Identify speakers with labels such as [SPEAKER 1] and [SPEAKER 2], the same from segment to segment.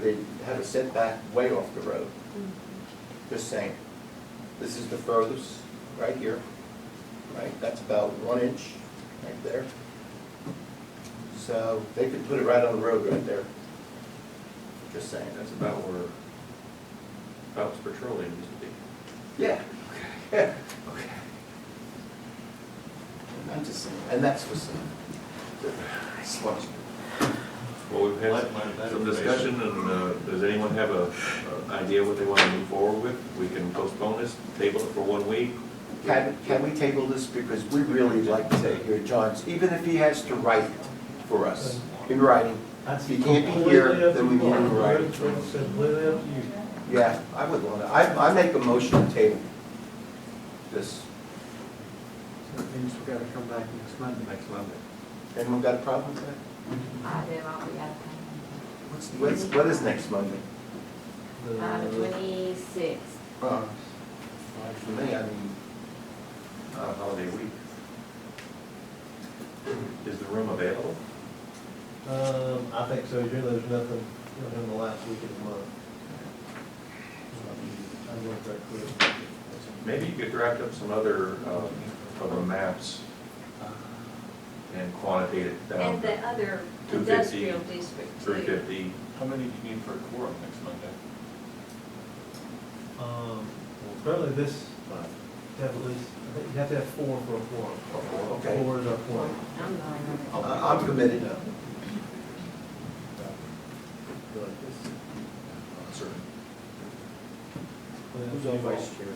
[SPEAKER 1] they have a setback way off the road. Just saying, this is the furthest, right here, right, that's about one inch, right there. So they could put it right on the road right there. Just saying,
[SPEAKER 2] That's about where Phelps Petroleum used to be.
[SPEAKER 1] yeah, yeah, I'm just saying, and that's for some, sludge.
[SPEAKER 2] Well, we've had
[SPEAKER 3] Like my better
[SPEAKER 2] some discussion, and uh, does anyone have a uh, idea what they want to move forward with? We can postpone this, table it for one week.
[SPEAKER 1] Can, can we table this because we really like to hear John's, even if he has to write it for us, in writing. If he can't be here, then we need him to write it.
[SPEAKER 4] It's completely up to you.
[SPEAKER 1] Yeah, I would want to, I, I make a motion to table this.
[SPEAKER 5] So things we gotta come back next Monday. Next Monday.
[SPEAKER 1] Anyone got a problem with that?
[SPEAKER 6] I do, I'll be out of
[SPEAKER 1] What's, what's, what is next Monday?
[SPEAKER 6] town. Uh, twenty-six.
[SPEAKER 1] Uh, For me, I mean,
[SPEAKER 2] Not a holiday week. Is the room available?
[SPEAKER 4] Um, I think so, usually there's nothing, you know, in the last week of the month. I looked that quick.
[SPEAKER 2] Maybe you could draft up some other, um, other maps and quantitate it down
[SPEAKER 6] And the
[SPEAKER 2] to
[SPEAKER 6] other
[SPEAKER 2] 250,
[SPEAKER 6] industrial district
[SPEAKER 2] three
[SPEAKER 6] too.
[SPEAKER 2] fifty.
[SPEAKER 3] How many do you need for a quorum next Monday?
[SPEAKER 4] Um, probably this, have at least, I think you have to have four for a quorum.
[SPEAKER 1] Okay.
[SPEAKER 4] Four is our quorum.
[SPEAKER 6] I'm not
[SPEAKER 1] I- Uh, I'm committed.
[SPEAKER 4] Who's our vice
[SPEAKER 1] chair?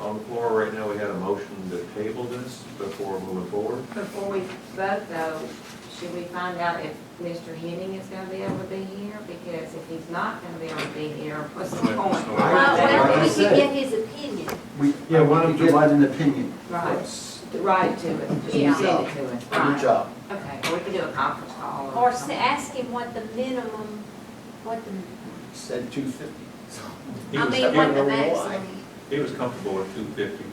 [SPEAKER 2] On the floor right now, we had a motion to table this before moving forward.
[SPEAKER 6] Before we vote though, should we find out if Mr. Henning is gonna be able to be here? Because if he's not gonna be able to be here, what's the
[SPEAKER 3] Wait,
[SPEAKER 6] point?
[SPEAKER 3] so-
[SPEAKER 6] Well, well, we
[SPEAKER 1] Like I
[SPEAKER 6] could
[SPEAKER 1] said.
[SPEAKER 6] get his opinion.
[SPEAKER 1] We,
[SPEAKER 4] Yeah,
[SPEAKER 1] yeah,
[SPEAKER 4] why
[SPEAKER 1] want
[SPEAKER 4] don't
[SPEAKER 1] to
[SPEAKER 4] you-
[SPEAKER 1] provide an opinion.
[SPEAKER 6] Right.
[SPEAKER 1] Yes.
[SPEAKER 6] The Right to it,
[SPEAKER 1] New
[SPEAKER 6] yeah, send
[SPEAKER 1] job.
[SPEAKER 6] it to us.
[SPEAKER 1] Good
[SPEAKER 6] Right.
[SPEAKER 1] job.
[SPEAKER 6] Okay, or we could do a conference call.
[SPEAKER 7] Or s-
[SPEAKER 6] something.
[SPEAKER 7] ask him what the minimum, what the,
[SPEAKER 1] Said two fifty.
[SPEAKER 2] He
[SPEAKER 7] I
[SPEAKER 2] was-
[SPEAKER 7] mean,
[SPEAKER 2] he-
[SPEAKER 7] what the
[SPEAKER 1] why.
[SPEAKER 7] maximum.
[SPEAKER 2] He was comfortable with two fifty.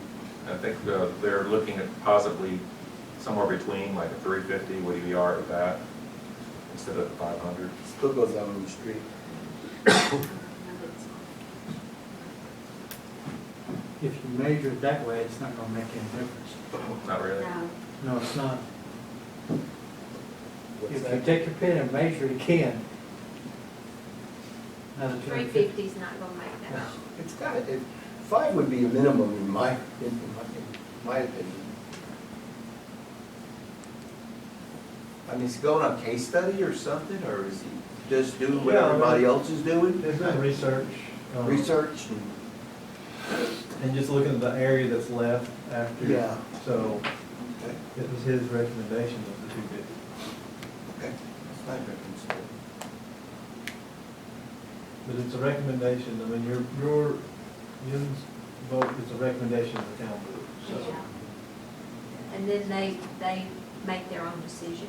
[SPEAKER 2] I think uh, they're looking at possibly somewhere between like a three fifty, what do you are at that, instead of five hundred.
[SPEAKER 1] Still goes down on the street.
[SPEAKER 5] If you measure it that way, it's not gonna make any difference.
[SPEAKER 2] Not really.
[SPEAKER 7] No.
[SPEAKER 5] No, it's not.
[SPEAKER 1] What's
[SPEAKER 5] If you
[SPEAKER 1] that?
[SPEAKER 5] take your pen and measure it again. another
[SPEAKER 7] Three
[SPEAKER 5] 250.
[SPEAKER 7] fifty's not gonna make that.
[SPEAKER 1] It's got, it, five would be a minimum in my, in my, in my opinion. I mean, is he going on case study or something, or is he just doing what
[SPEAKER 4] Yeah,
[SPEAKER 1] everybody else is doing?
[SPEAKER 4] There's been research. um,
[SPEAKER 1] Research and.
[SPEAKER 4] And just looking at the area that's left after.
[SPEAKER 1] Yeah.
[SPEAKER 4] So it was his recommendation of the two fifty.
[SPEAKER 1] Okay. It's not reconciled.
[SPEAKER 4] But it's a recommendation, I mean, your, your, Jim's vote is a recommendation of the town board, so.
[SPEAKER 7] Yeah. And then they, they make their own decision.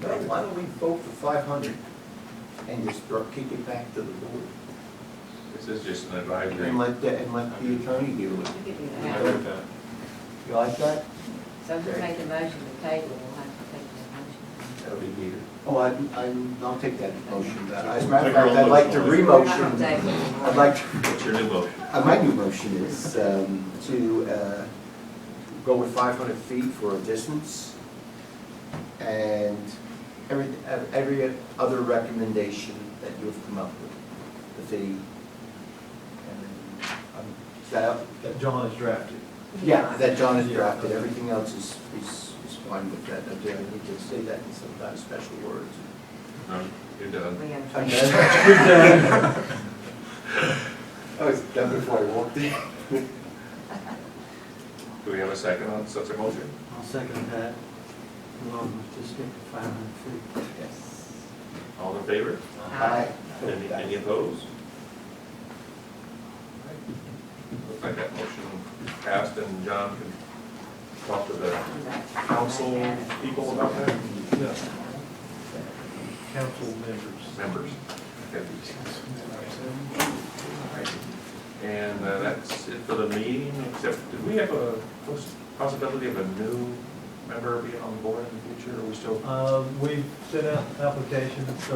[SPEAKER 1] No, Why don't we vote for five hundred and just throw- kick it back to the board?
[SPEAKER 2] This is just an
[SPEAKER 1] And
[SPEAKER 2] advisory.
[SPEAKER 1] let, the- and let the attorney deal with it.
[SPEAKER 6] We could do
[SPEAKER 3] I
[SPEAKER 6] that.
[SPEAKER 3] like that.
[SPEAKER 1] You like that?
[SPEAKER 6] So if we make a motion to table, we'll have to take that motion.
[SPEAKER 2] That'll be heated.
[SPEAKER 1] Oh, I, I'm, I'll take that motion. As a matter
[SPEAKER 3] Take your
[SPEAKER 1] of fact,
[SPEAKER 3] own
[SPEAKER 1] I'd like to
[SPEAKER 3] motion.
[SPEAKER 6] We're not gonna
[SPEAKER 1] re-motion.
[SPEAKER 6] table it anymore.
[SPEAKER 1] I'd like,
[SPEAKER 2] What's your new motion?
[SPEAKER 1] uh, my new motion is um, to uh, go with 500 feet for a distance and every, ev- every other recommendation that you've come up with, the fee. and then, um, Is that up?
[SPEAKER 4] That John has drafted.
[SPEAKER 1] Yeah, that John has drafted, everything else is, is is fine with that. I do, I need to say that in some kind of special words.
[SPEAKER 2] No, You're done.
[SPEAKER 6] We gotta
[SPEAKER 1] I'm
[SPEAKER 6] try.
[SPEAKER 1] done. I was done before I walked in.
[SPEAKER 2] Do we have a second on such a motion?
[SPEAKER 5] I'll second that, along with just stick to five hundred feet.
[SPEAKER 1] Yes.
[SPEAKER 2] All in favor?
[SPEAKER 1] Aye.
[SPEAKER 2] Any, any opposed? Looks like that motion passed, and John can talk to the council people about that,
[SPEAKER 4] Yeah. Council members.
[SPEAKER 2] members. Okay. And uh, that's it for the meeting, except, did we have a poss- possibility of a
[SPEAKER 4] Uh,
[SPEAKER 2] new member being on the board in the future, are we still
[SPEAKER 4] Um, we've sent out applications, so